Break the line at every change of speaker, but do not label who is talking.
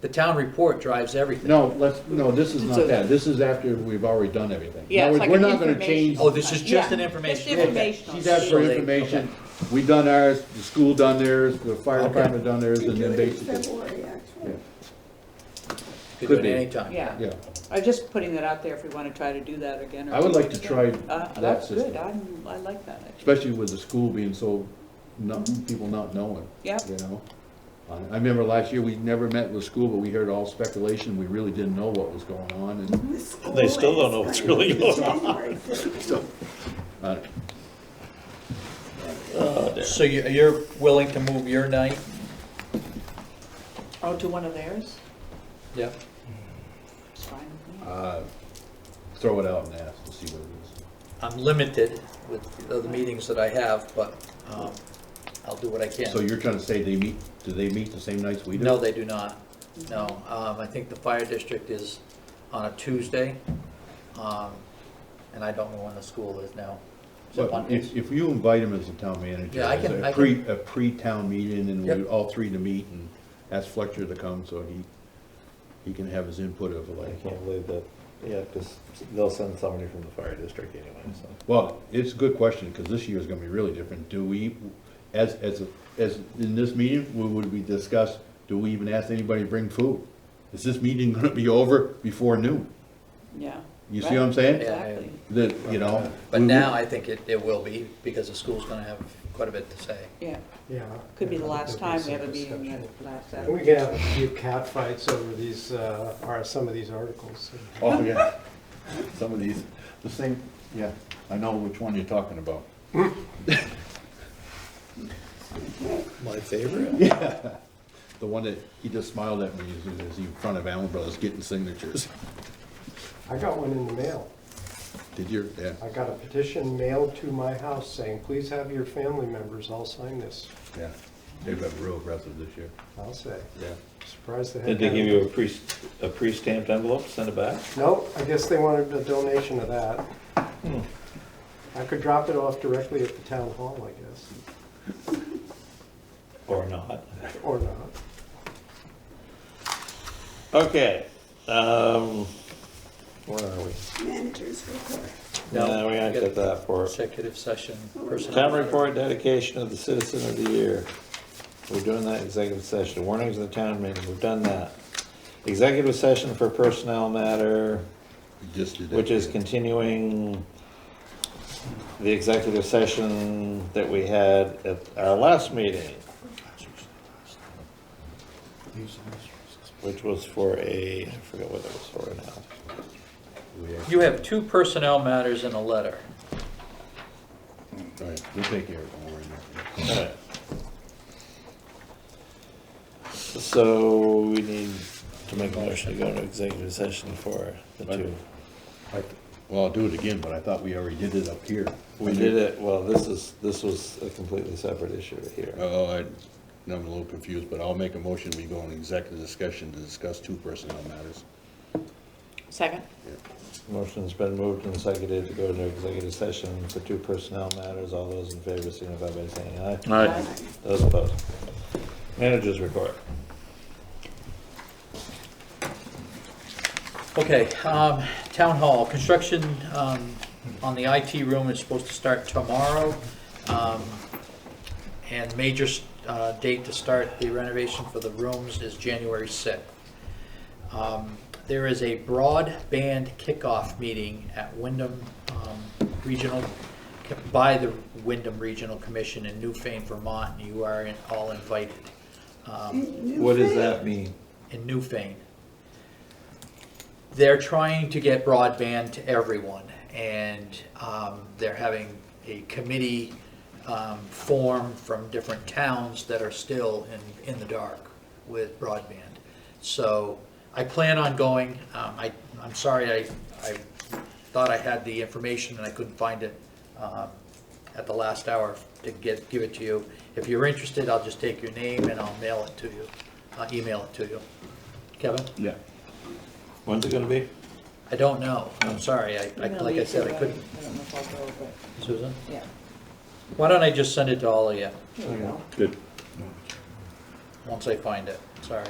the town report drives everything.
No, let's, no, this is
So-
not that, this is is after we've already done everything.
Yeah, it's
In other
like
words,
an
We're not gonna change.
information-
Oh, this is just an
Yeah.
information.
Just informational.
She's asked for
So they-
information, we done ours, the school done theirs, the fire
Okay.
department done theirs,
We
and
do
then
it in
basically,
February, actually.
Could do
Could
it
be.
anytime.
Yeah,
yeah.
I'm just putting that out there if we want to try to do that again. or
I would
do
like
it
to
again.
try
Uh,
that
That's good,
system,
I'm, I like that idea.
especially with the school being so, not, people not knowing,
Yeah,
you know? Uh, I remember last year, we never met with school, but we heard all speculation, we really didn't know what was going on, and,
The school
They still don't know what's
is
really going on.
January fifteenth.
uh,
So you- you're willing to move your night?
oh, to one of theirs,
Yeah.
it's fine with me.
uh, throw it out and ask and see what it is.
I'm limited with the other meetings that I have, but um, I'll do what I
So
can.
you're trying to say they meet, do they meet the same nights we do?
No, they do not. No, um, I think the fire district is on a Tuesday, um, and I don't know when the school is now. Is it
But
Mondays?
if, if you invite him as a town manager,
Yeah, I
as
can- I
a pre, a pre-town meeting, and we,
Yep.
all three to meet, and ask Fletcher to come, so he, he can have his input of
I
like,
can't believe that, yeah, because they'll send somebody from the fire district anyway, so.
well, it's a good question, because this year's gonna be really different, do we, as, as, a- as, in this meeting, would, would we discuss, do we even ask anybody to bring food? Is this meeting gonna be over before noon?
Yeah.
You see
Right.
what I'm saying?
Yeah, I-
Exactly.
That, you know?
But
we- we-
now I think it, it will be, because the school's gonna have quite a bit to say.
Yeah,
Yeah.
could be the last time we have a
There'll be some
meeting
discussion.
that lasts that.
We could have a few catfights over these, uh, or some of these articles.
Oh, yeah. Some of these, the same, yeah, I know which one you're talking about.
My favorite?
The one that he just smiled at me as- as he in front of Allen Brothers getting signatures.
I got one in the mail.
Did you? Yeah,
I got a petition mailed to my house saying, please have your family members all sign this.
yeah. They've been real aggressive this year.
I'll say,
Yeah.
surprised they had.
Did they give you a pre, a pre-stamped envelope, send it back?
Nope, I guess they wanted a donation of that.
Hmm.
I could drop it off directly at the town hall, I guess,
Or not?
or not.
Okay, um, where are we?
Managers report.
No, we ain't got that for
Executive session,
Town
personnel.
report dedication of the citizen of the year. We're doing that executive session, warnings of the town meeting, we've done that. Executive session for personnel matter,
You Just did that.
which is continuing the executive session that we had at our last meeting, which was for a, I forget what it was for now.
We-
You have two personnel matters in a letter.
All right, we'll take care of it, don't worry about it.
Alright. So we need to make a motion to go into executive session for the two.
I th- Well, I'll do it again, but I thought we already did it up here.
We did it, well, this is, this was a completely separate issue here.
Oh, I, I'm a little confused, but I'll make a motion, we go in executive discussion to discuss two personnel matters.
Second?
Motion's been moved and seconded to go into executive session for two personnel matters. All those in favor signify by saying aye.
Aye.
Those opposed. Managers report.
Okay, um, town hall, construction, um, on the IT room is supposed to start tomorrow. Um, and major, uh, date to start the renovation for the rooms is January sixth. Um, there is a broadband kickoff meeting at Wyndham, um, Regional, by the Wyndham Regional Commission in Newfane, Vermont, and you are in- all invited. Um,
New
What does
thing.
that mean?
in Newfane. They're trying to get broadband to everyone, and um, they're having a committee um, form from different towns that are still in, in the dark with broadband. So I plan on going. Um, I, I'm sorry, I, I thought I had the information and I couldn't find it um, at the last hour to get, give it to you. If you're interested, I'll just take your name and I'll mail it to you, I'll email it to you. Kevin?
Yeah.
When's it gonna be?
I don't know. I'm sorry. I, I-
I'm gonna
like I
leave
said,
too,
I couldn't.
I don't know if I'll go, but,
Susan?
yeah.
Why don't I just send it to all of you,
Here we go.
Good.
once I find it? Sorry.